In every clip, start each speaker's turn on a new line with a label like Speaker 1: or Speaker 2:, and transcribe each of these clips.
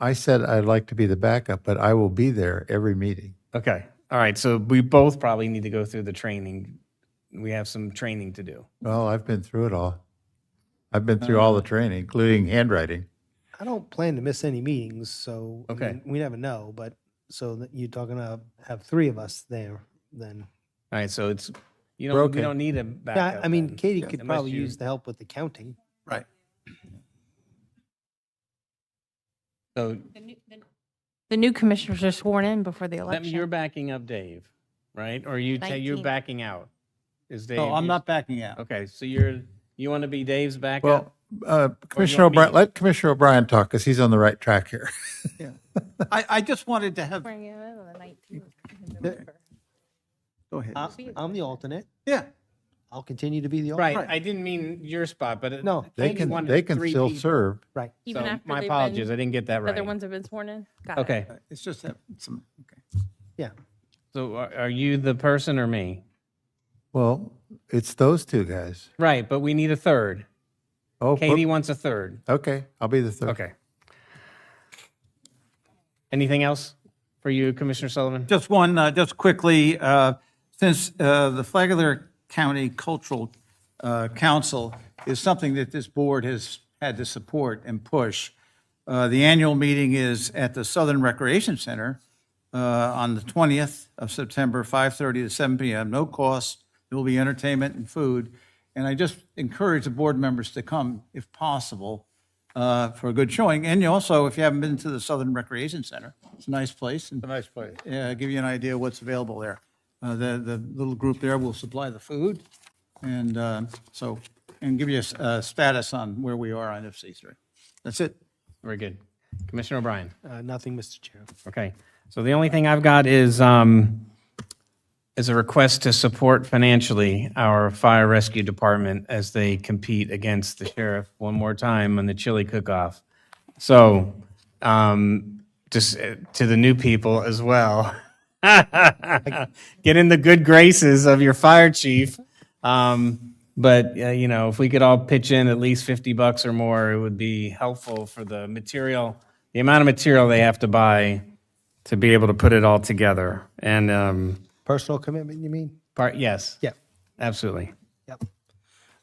Speaker 1: I said I'd like to be the backup, but I will be there every meeting.
Speaker 2: Okay. All right. So we both probably need to go through the training. We have some training to do.
Speaker 1: Well, I've been through it all. I've been through all
Speaker 2: Uh-huh.
Speaker 1: the training, including handwriting.
Speaker 3: I don't plan to miss any meetings, so. I
Speaker 2: Okay.
Speaker 3: mean, We never know, but, so that you're talking to have three of us there, then.
Speaker 2: All right. So it's, you
Speaker 1: We're
Speaker 2: know, we
Speaker 1: okay.
Speaker 2: don't need a
Speaker 3: Yeah,
Speaker 2: backup.
Speaker 3: I mean,
Speaker 2: then.
Speaker 3: Katie could
Speaker 2: Unless
Speaker 3: probably
Speaker 2: you-
Speaker 3: use the help with the counting.
Speaker 2: So
Speaker 4: The new commissioners are sworn in before the
Speaker 2: that-
Speaker 4: election.
Speaker 2: you're backing up Dave, right? Or you, ta- you're
Speaker 4: 19.
Speaker 2: backing out. Is Dave?
Speaker 5: No, Oh, I'm
Speaker 2: you-
Speaker 5: not backing out.
Speaker 2: Okay. So you're, you want to be Dave's backup?
Speaker 1: Well, uh, Commissioner
Speaker 2: want me
Speaker 1: O'Brien,
Speaker 2: to-
Speaker 1: let Commissioner O'Brien talk because he's on the right track here.
Speaker 5: I, I just wanted to have,
Speaker 4: Swearing in on the 19th of
Speaker 5: Yeah.
Speaker 4: November.
Speaker 5: go ahead.
Speaker 3: I- I'm the alternate.
Speaker 5: uh, Yeah,
Speaker 3: I'll continue to be the alternate.
Speaker 2: Right. I didn't mean your spot, but. it-
Speaker 3: No.
Speaker 2: I
Speaker 1: They
Speaker 2: think you
Speaker 1: can,
Speaker 2: wanted
Speaker 1: they can
Speaker 2: three
Speaker 1: still
Speaker 2: people.
Speaker 1: serve.
Speaker 3: Right.
Speaker 4: Even
Speaker 2: So
Speaker 4: after
Speaker 2: My
Speaker 4: they've
Speaker 2: apologies.
Speaker 4: been-
Speaker 2: I didn't get that
Speaker 4: The other
Speaker 2: right.
Speaker 4: ones have been sworn in? Got it.
Speaker 2: Okay.
Speaker 5: it's just that, some, okay.
Speaker 3: Yeah.
Speaker 2: So are are you the person or me?
Speaker 1: Well, it's those two guys.
Speaker 2: Right. But we need a third.
Speaker 1: Oh, but-
Speaker 2: Katie wants a third.
Speaker 1: okay, I'll be the third.
Speaker 2: Okay. Anything else for you, Commissioner Sullivan?
Speaker 5: Just one, uh, just quickly, uh, since uh, the Flagler County Cultural uh, Council is something that this board has had to support and push, uh, the annual meeting is at the Southern Recreation Center uh, on the 20th of September, 5:30 to 7 p.m., no cost. There will be entertainment and food. And I just encourage the board members to come, if possible, uh, for a good showing. And you also, if you haven't been to the Southern Recreation Center, it's a nice place. and-
Speaker 1: Nice play.
Speaker 5: uh, give you an idea what's available there. Uh, The, the little group there will supply the food and uh, so, and give you a s- a status on where we are on FC3. That's it.
Speaker 2: Very good. Commissioner O'Brien?
Speaker 3: Uh, Nothing, Mr. Chair.
Speaker 2: Okay. So the only thing I've got is, um, is a request to support financially our fire rescue department as they compete against the sheriff one more time on the chili cook-off. So, um, just uh, to the new people as well. Get in the good graces of your fire chief. Um, but, uh, you know, if we could all pitch in at least 50 bucks or more, it would be helpful for the material, the amount of material they have to buy to be able to put it all together. And, um,
Speaker 3: Personal commitment, you mean?
Speaker 2: Part, yes.
Speaker 3: Yeah.
Speaker 2: Absolutely.
Speaker 3: Yep.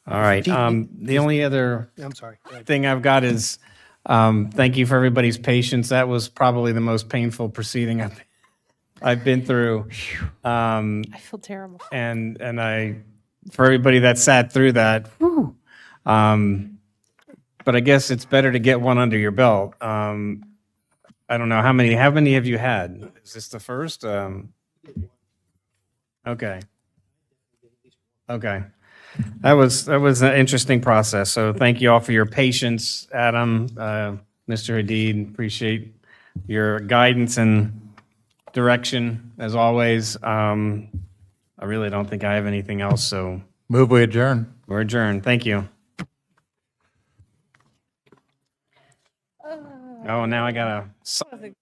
Speaker 2: All right. Um, the only other
Speaker 3: I'm sorry. Go ahead.
Speaker 2: thing I've got is, um, thank you for everybody's patience. That was probably the most painful proceeding I've, I've been through. Um,
Speaker 4: I feel terrible.
Speaker 2: and, and I, for everybody that sat through that, whew, um, but I guess it's better to get one under your belt. Um, I don't know how many, how many have you had? Is this the first? Um, okay. Okay. That was, that was an interesting process. So thank you all for your patience, Adam, uh, Mr. Hadid, appreciate your guidance and direction as always. Um, I really don't think I have anything else, so
Speaker 1: Move we adjourn.
Speaker 2: we're adjourned. Thank you. Oh, now I gotta.